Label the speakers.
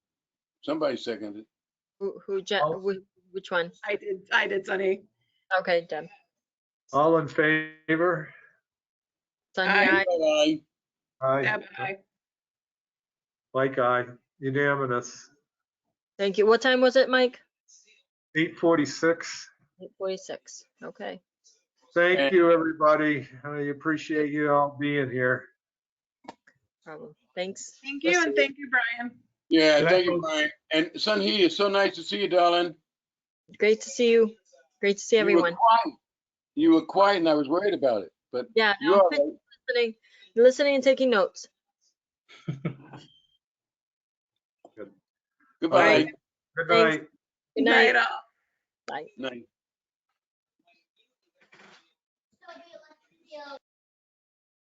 Speaker 1: Somebody seconded.
Speaker 2: Who, who, je-
Speaker 1: Oh.
Speaker 3: I'll-
Speaker 2: whi- which one?
Speaker 4: I did, I did, Sunny.
Speaker 2: Okay, Deb.
Speaker 3: All in favor?
Speaker 2: Sonia,
Speaker 4: Aye.
Speaker 2: aye.
Speaker 1: Aye.
Speaker 3: Aye,
Speaker 4: Deb, aye.
Speaker 3: like aye, unanimous.
Speaker 2: Thank you. What time was it, Mike?
Speaker 3: 846.
Speaker 2: 8:46. Okay.
Speaker 3: Thank you, everybody. I appreciate you all being here.
Speaker 2: Problem. Thanks.
Speaker 4: Thank
Speaker 2: We'll
Speaker 4: you,
Speaker 2: see
Speaker 4: and thank you, Brian.
Speaker 1: Yeah,
Speaker 3: Can I
Speaker 1: thank you,
Speaker 3: vote?
Speaker 1: Brian. And Sun He, it's so nice to see you, darling.
Speaker 2: Great to see you. Great to see
Speaker 1: You were
Speaker 2: everyone.
Speaker 1: quiet. You were quiet and I was worried about it, but
Speaker 2: Yeah, no,
Speaker 1: you're all
Speaker 2: I'm
Speaker 1: right.
Speaker 2: listening, listening and taking notes.
Speaker 1: Goodbye.
Speaker 3: Good
Speaker 2: Thanks.
Speaker 3: night.
Speaker 2: Good night.
Speaker 4: all.
Speaker 1: Night.